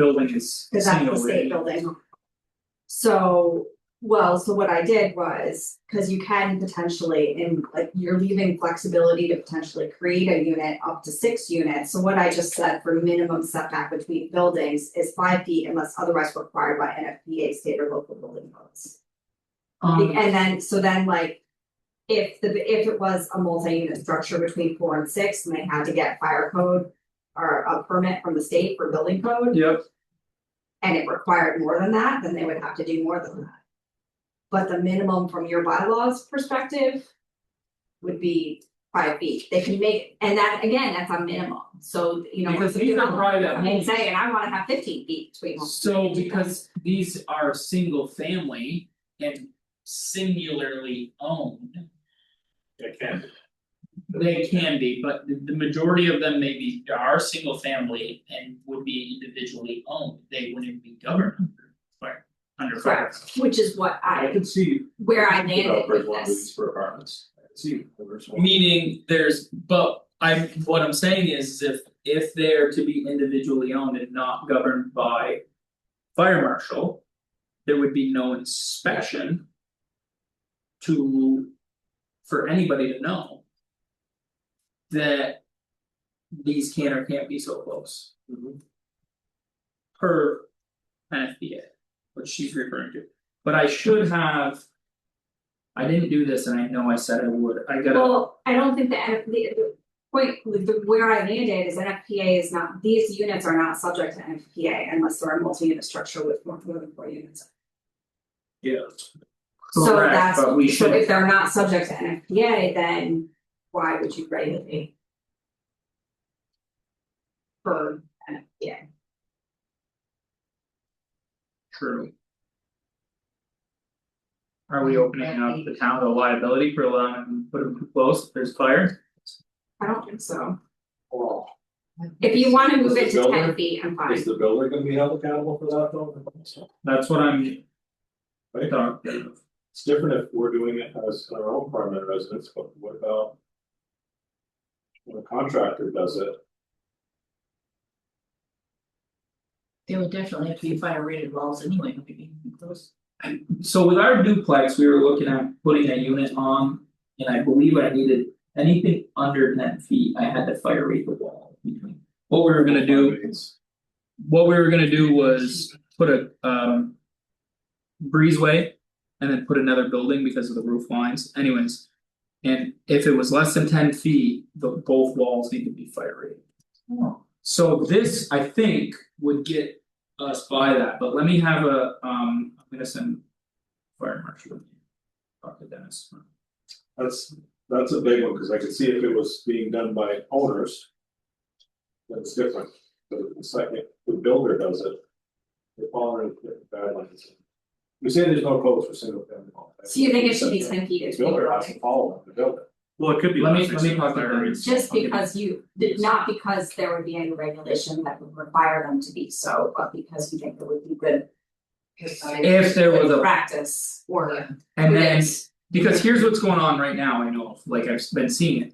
building is Cause that's casino the state related. building. So, well, so what I did was, cause you can potentially, and like you're leaving flexibility to potentially create a unit up to six units. So what I just said for minimum setback between buildings is five feet unless otherwise required by NFPA state or local building codes. Be- Um, And then, so then like. If the, if it was a multi-unit structure between four and six and they had to get fire code. Or a permit from the state for building code Yep, and it required more than that, then they would have to do more than that. But the minimum from your bylaws perspective. Would be five feet, they can make, and that, again, that's a minimum, so, you know. because if these you're are private I mean, homes. say, and I wanna have fifteen feet between. them. So because these are single family and singularly owned, It can, they can be, but the the majority of them maybe are single family and would be individually owned, they wouldn't be governed under. fire- Under fire. Correct, which is what I I, can see where I landed developers with want to this, use for apartments, I can see developers want. Meaning there's, but I'm, what I'm saying is if if they're to be individually owned and not governed by. Fire marshal. There would be no inspection. To. For anybody to know. That. These can or can't be so close Mhm. per NFPA, what she's referring to, but I should have. I didn't do this and I know I said I would, I gotta. well, I don't think the NF, the, the point, with the, where I landed is NFPA is not, these units are not subject to NFPA unless they're a multi-unit structure with more than four units. Yeah. So that's, But we so if should, they're not subject to NFPA, then why would you regulate? For NFPA, true. Are we opening up the town to liability for allowing them to put them too close if there's fire? I don't think so, Well, if you wanna move it Is to the ten builder- feet, I'm Is fine, the builder gonna be held accountable for that though? That's what I'm. Right. Dark. It's different if we're doing it as our own permanent residence, but what about? When a contractor does it, there would definitely have to be fire rated walls anyway, maybe those. So with our duplex, we were looking at putting a unit on, and I believe I needed anything under ten feet, I had to fire rate the wall between. What we were gonna do, it's- what we were gonna do was put a um. Breezeway and then put another building because of the roof lines anyways. And if it was less than ten feet, the both walls need to be fire rated. Oh. So this, I think, would get us by that, but let me have a um, I'm gonna send. Fire marshal. with you. Talk to Dennis. that's, that's a big one, cause I could see if it was being done by owners. Then it's different, but the second, the builder does it. They're following the guidelines. We say there's no codes for single family. homes. so you think it should be ten feet The is builder has to follow them, the builder. Well, it could be. Let me- less let me talk to expensive. them. Just because you, not because there would be any regulation that would require them to be so, but because you think it would be good. If there was a, Practice or. and then, Yes. because here's what's going on right now, I know, of, like I've been seeing it.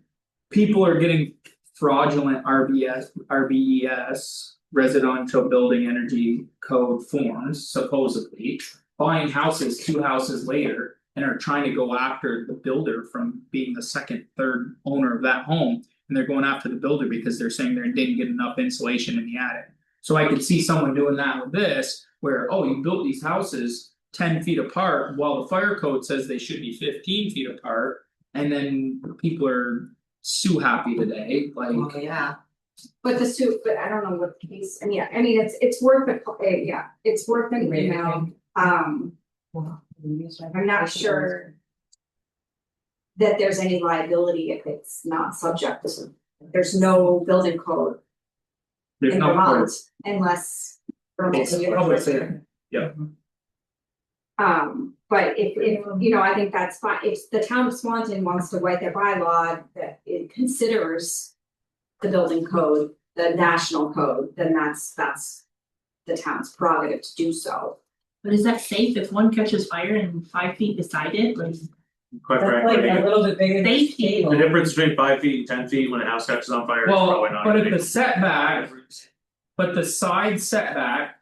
People are getting fraudulent RBS, RBES, E residential building energy code forms supposedly. Buying houses two houses later and are trying to go after the builder from being the second, third owner of that home. And they're going after the builder because they're saying they didn't get enough insulation in the attic. So I could see someone doing that with this, where, oh, you built these houses ten feet apart, while the fire code says they should be fifteen feet apart. And then people are so happy today, like, Okay, yeah. But the suit, but I don't know what case, and yeah, I mean, it's it's worth it, uh, yeah, it's worth an email, um. I'm not sure. That there's any liability if it's not subject to, some- there's no building code there's in no. Vermont unless. Vermont's a It's public university. safety. Yeah. Um, but if if, you know, I think that's fine, if the town of Swanton wants to write their bylaw that it considers. The building code, the national code, then that's that's. The town's prerogative to do so, But is that safe if one catches fire and five feet beside it, like Quite That's like frankly, a little bit bigger than a safety? the table. difference between five feet and ten feet when a house catches on fire is Well, probably not. but a if big- the setback But the side setback